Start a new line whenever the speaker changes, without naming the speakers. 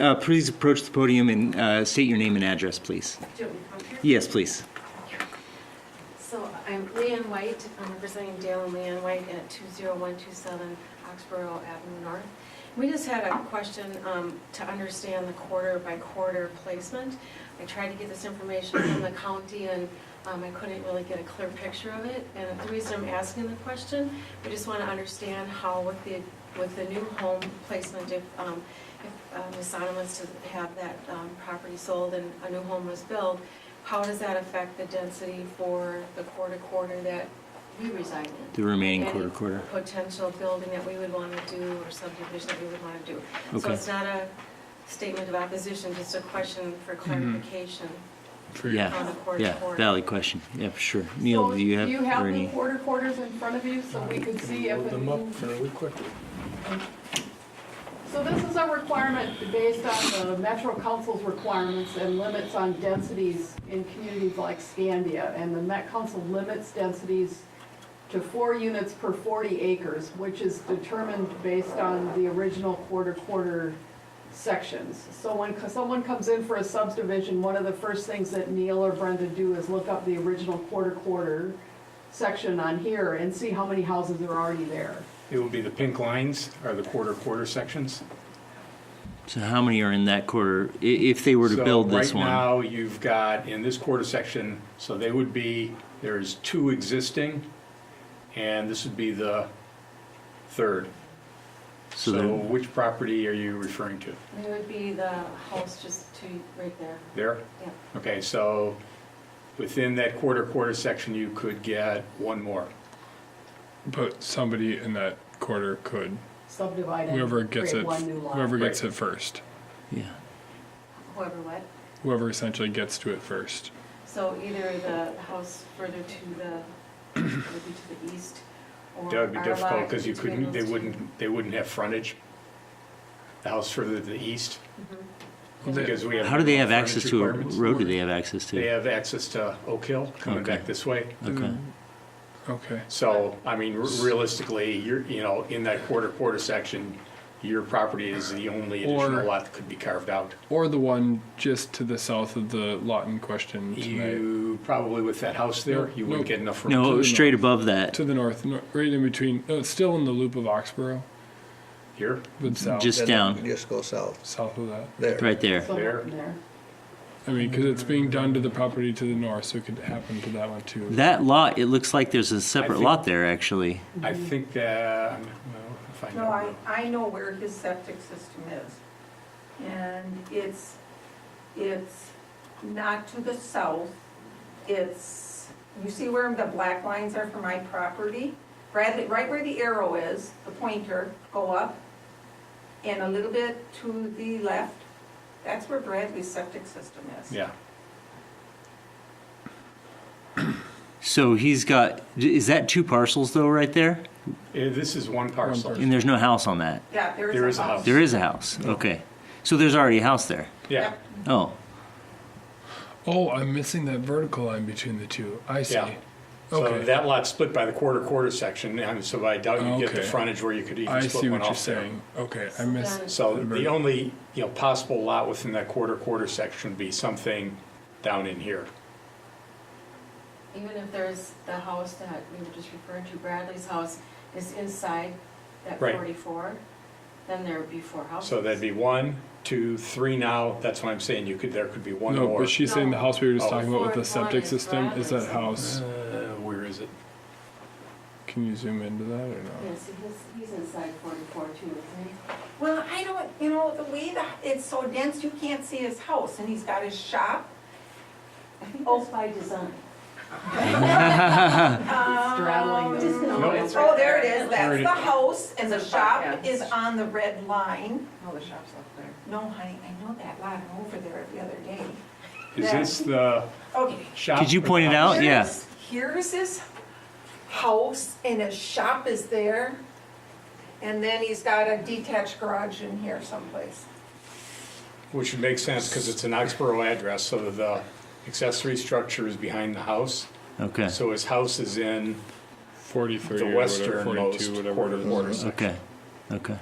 Uh, Please approach the podium and uh, state your name and address, please.
Do you want me to come here?
Yes, please.
So I'm Leanne White, I'm representing Dale and Leanne White at 20127 Oxborough Avenue North. We just had a question um, to understand the quarter by quarter placement. I tried to get this information from the county and um, I couldn't really get a clear picture of it. And the reason I'm asking the question, we just want to understand how with the, with the new home placement, if, um, if uh, Ms. Sonam was to have that um, property sold and a new home was built, how does that affect the density for the quarter-quarter that we reside in?
The remaining
Any
quarter, quarter.
Potential building that we would want to do or subdivision that we would want to do. So
Okay.
it's not a statement of opposition, just a question
Mm-hmm.
for clarification on the
Yeah, yeah,
quarter-quarter.
valid question. Yeah, for sure. Neil, do you have?
You have
or
the
any-
quarter quarters in front of you, so we can see if.
Load
it
them up
moves.
fairly quickly.
So this is a requirement based on the Metro Council's requirements and limits on densities in communities like Scandia. And the Met Council limits densities to four units per 40 acres, which is determined based on the original quarter-quarter sections. So when co- someone comes in for a subdivision, one of the first things that Neil or Brenda do is look up the original quarter-quarter section on here and see how many houses are already there.
It would be the pink lines are the quarter, quarter sections.
So how many are in that quarter, i- if they were to
So
build this one?
Right now, you've got in this quarter section, so they would be, there's two existing, and this would be the third.
So
So
the-
which property are you referring to?
It would be the house just to, right there,
There?
yeah.
Okay, so within that quarter, quarter section, you could get one more.
But somebody in that quarter could,
subdivided.
whoever gets
create
it,
One new lot.
whoever gets
Right.
it first,
Yeah,
Whoever what.
whoever essentially gets to it first.
So either the house further to the, maybe to the east, or
That would be
our
difficult
lot
because you
between
couldn't, they
those two.
wouldn't, they wouldn't have frontage. The house further to the east,
They-
because we have.
how do they have
frontage
access to a
requirements.
road? Do they have access to?
They have access to Oak Hill coming back
Okay.
this way.
Okay,
Okay,
So, I mean, r- realistically, you're, you know, in that quarter, quarter section, your property is the only
Or-
additional lot that could be carved out.
or the one just to the south of the lot in question tonight,
You, probably with that house there, you wouldn't
Nope.
get enough room.
no,
the
straight
north.
above that,
to the north, no- right in between. No, it's still in the loop of Oxborough,
Here,
but south,
just
Then you
down,
Just go south,
south of that.
there.
right there.
Somewhere
There.
in there.
I mean, because it's being done to the property to the north, so it could happen to that one too.
That lot, it looks like there's a separate
think-
lot there, actually.
I think that, I'm- well, if I
Mm-hmm. No, I,
know.
I know where his septic system is. And it's, it's not to the south. It's, you see where the black lines are for my property? Right, right where the arrow is, the pointer, go up, and a little bit to the left. That's where Bradley's septic system is.
Yeah,
So he's got, is that two parcels though, right there?
Eh, this is one parcel.
And there's no house on that?
Yeah, there is a house.
There is a house.
There is a house, okay. So there's already a house there?
Yeah,
Oh,
Oh, I'm missing that vertical line between the two. I see.
Yeah. so
Okay.
that lot's split by the quarter, quarter section, and so I doubt you get the
Okay.
frontage where you could even
I see
split one
what you're
off there.
saying. Okay, I missed.
So the only, you know, possible lot within that quarter, quarter section would be something down in here.
Even if there's the house that we were just referring to, Bradley's house is inside that
Right.
forty-four, then there would be four houses.
So that'd be one, two, three now. That's what I'm saying. You could, there could be one
No,
more. Oh.
but she's saying the house we were just
No.
talking about with the
Fourth one
septic
is
system
Bradley's.
is that house.
Uh, where is it?
Can you zoom into that or no?
Yeah, see, he's, he's inside forty-four too, isn't he?
Well, I don't, you know, the way that, it's so dense, you can't see his house, and he's got his shop.
I think that's by design.
Straddling the-
just gonna-
No,
it's
it's-
right
Oh, there it
there.
There
is,
it
that's
is.
the house, and the
It's a
shop
shop, yeah.
is on the red line.
All Oh, the shops up there.
No, honey, I know that lot, I'm over there every other day.
Is
Yeah.
this the
Okay.
shop?
Could you
or
point it
house?
out? yeah.
Here's- Here's his house, and his shop is there, and then he's got a detached garage in here someplace.
Which would make sense because it's an Oxborough address, so the accessory structure is behind the house.
okay,
So his house is in
Forty-three
the
or whatever,
westernmost
forty-two, whatever
quarter,
it
quarter
is.
section.
okay, okay.